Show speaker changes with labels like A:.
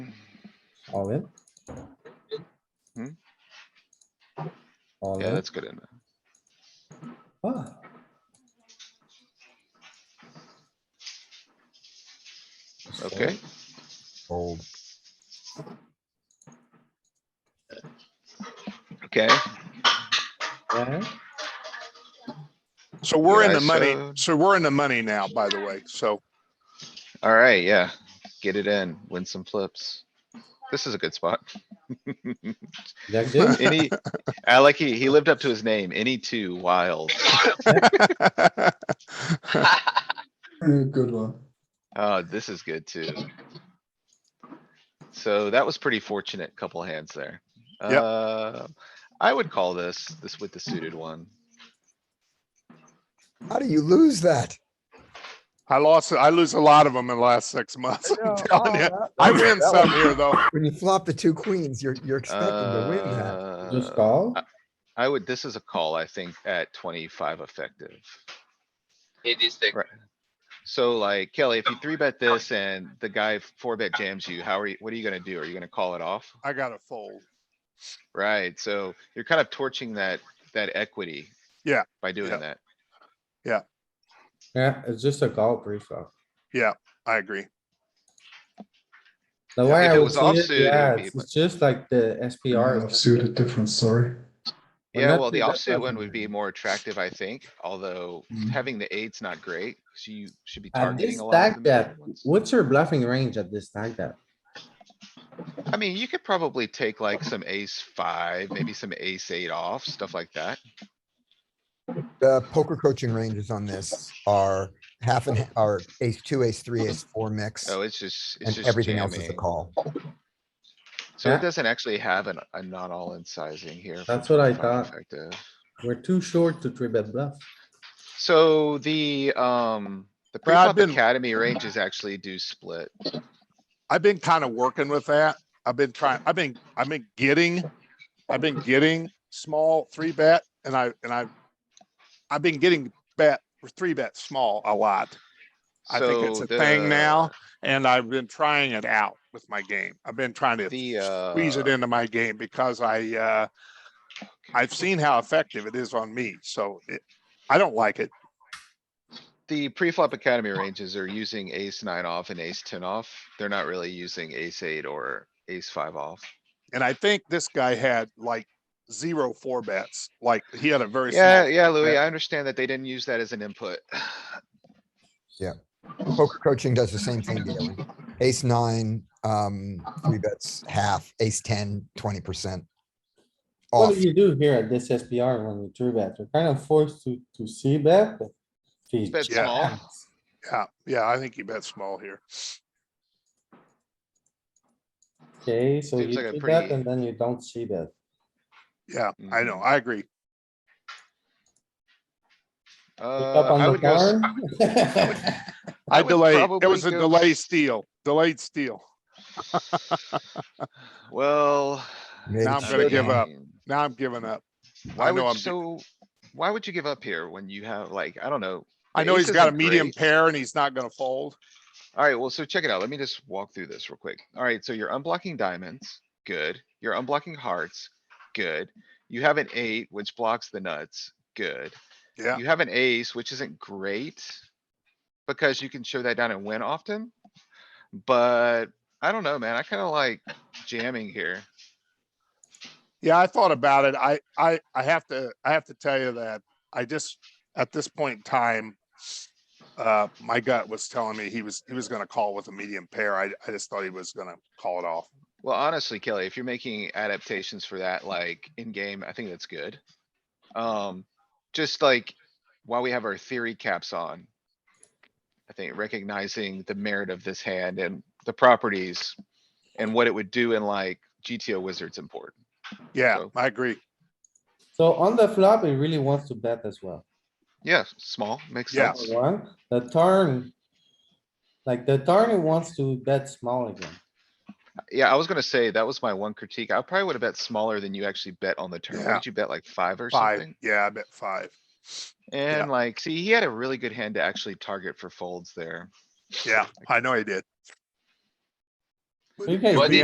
A: all in?
B: Hmm?
A: All
B: Yeah,
A: in,
B: that's good in.
A: Ah, Just fold,
B: Okay,
A: Fold,
B: okay.
A: yeah,
C: So we're in
B: Yeah,
C: the money,
B: so-
C: so we're in the money now, by the way, so
B: Alright, yeah. Get it in, win some flips. This is a good spot.
A: jack did,
B: Any, I like he, he lived up to his name, any two wild.
D: Good one.
B: Oh, this is good too. So that was pretty fortunate couple hands there.
C: Yep.
B: Uh, I would call this, this with the suited one.
E: How do you lose that?
C: I lost, I lose a lot of them in the last six months. I'm telling you. I win some here, though.
E: When you flop the two queens, you're, you're expecting to win that.
A: just
B: Uh,
A: call,
B: uh, I would, this is a call, I think, at twenty-five effective.
F: It is the
B: Right. So like Kelly, if you three bet this and the guy four bet jams you, how are you, what are you gonna do? Are you gonna call it off?
C: I got a fold.
B: Right, so you're kind of torching that, that equity.
C: Yeah,
B: By doing
C: yeah.
B: that.
A: yeah, it's just a call pre-flop.
C: I agree.
A: The
B: Yeah,
A: way
B: if
A: I
B: it
A: would
B: was
A: see it,
B: offsuit, it
A: yeah,
B: would be
A: it's
B: much-
A: it's just like the
D: Yeah,
A: SPR,
D: suited different story.
A: Well,
B: Yeah,
A: that
B: well, the
A: three bet
B: offsuit one
A: doesn't
B: would
A: matter.
B: be more attractive, I think, although
D: Mm.
B: having the eight's not great, so you should be
A: at
B: targeting
A: this
B: a lot
A: stack
B: of the middle
A: depth,
B: ones.
A: what's your bluffing range at this stack depth?
B: I mean, you could probably take like some ace five, maybe some ace eight off, stuff like that.
E: The poker coaching ranges on this are half and, ha- are ace two, ace three, ace four mix.
B: Oh, it's just, it's
E: And
B: just
E: everything else is a
B: jamming.
E: call.
B: So
A: Yeah.
B: it doesn't actually have an, a not all in sizing here. for
A: That's what I
B: 25
A: thought.
B: effective.
A: We're too short to three bet bluff.
B: So the, um, the
C: Well,
B: pre-flop
C: I've been-
B: academy ranges actually do split.
C: I've been kind of working with that. I've been trying, I've been, I've been getting, I've been getting small three bet and I, and I, I've been getting bet, three bet small a lot. I think it's
B: So
C: a thing
B: the- uh
C: now. And I've been trying it out with my game. I've been trying to
B: The,
C: squeeze it
B: uh,
C: into my game because I, uh, I've seen how effective it is on me, so it, I don't like it.
B: the pre-flop academy ranges are using ace nine off and ace ten off. They're not really using ace eight or ace five off.
C: And I think this guy had like zero four bets, like he had a very
B: Yeah,
C: small,
B: yeah, Louis,
C: Yeah.
B: I understand that they didn't use that as an input.
E: Poker coaching does the same thing. to you. Ace nine, um, three bets, half, ace 10, 20%.
A: What
E: Off.
A: do you do here at this SPR when you three bet? You're kind of forced to, to see bet. but he
B: Bet
C: Yeah.
B: small.
A: jams.
C: yeah, yeah, I think he bet small here.
A: Okay, so
B: Seems
A: you
B: like
A: three
B: a
A: bet
B: pretty-
A: and then you don't see bet.
C: Yeah, I know,
B: Mhm.
C: I agree.
A: Pick
B: Uh,
A: up on
B: I
A: the
B: would go, s-
A: turn.
B: I
C: I
B: would
C: delayed, it
B: probably
C: was a
B: go
C: delay
B: s-
C: steal, delayed steal.
B: well.
E: Maybe
C: Now I'm
E: it's
C: gonna give
E: showdown.
C: up. Now I'm giving up.
B: Why
C: know
B: would,
C: I'm-
B: so, why would you give up here when you have like, I don't know.
C: I
B: the
C: know
B: ace
C: he's got a
B: isn't
C: medium
B: great.
C: pair and he's not gonna fold.
B: Alright, well, so check it out. Let me just walk through this real quick. Alright, so you're unblocking diamonds, good. You're unblocking hearts, good. You have an eight, which blocks the nuts, good.
C: Yeah.
B: You have an ace, which isn't great. Because you can show that down and win often. But I don't know, man. I kinda like jamming here.
C: Yeah, I thought about it. I, I, I have to, I have to tell you that I just, at this point in time, uh, my gut was telling me he was, he was gonna call with a medium pair. I, I just thought he was gonna call it off.
B: Well, honestly, Kelly, if you're making adaptations for that, like in game, I think that's good. Um, just like while we have our theory caps on. I think recognizing the merit of this hand and the properties and what it would do in like GTO wizards important.
C: Yeah,
B: So-
C: I agree.
A: So on the flop, he really wants to bet as well.
B: Yeah, small, makes
C: Yeah.
B: sense.
A: Number One, the turn. Like the turn, he wants to bet small again.
B: Yeah, I was gonna say, that was my one critique. I probably would have bet smaller than you actually bet on the turn. What
C: Yeah.
B: Did you bet like five or
C: Five,
B: something?
C: yeah, I bet five.
B: And like, see, he had a really good hand to actually target for folds there.
C: Yeah, I know he did.
A: You guys
C: It'd be
F: did